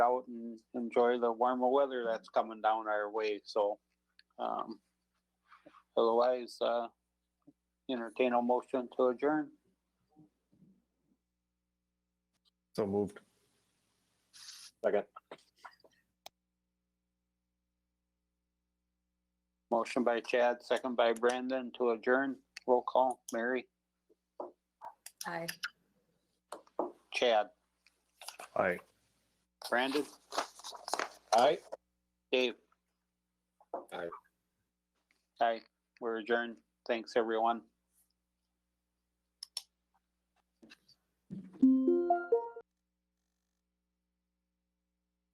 out and enjoy the warmer weather that's coming down our way. So, um, otherwise, uh, entertain a motion to adjourn. So moved. Second. Motion by Chad, second by Brandon to adjourn. Roll call, Mary, Aye. Chad, Aye. Brandon, Aye. Dave. Aye. Aye, we're adjourned. Thanks, everyone.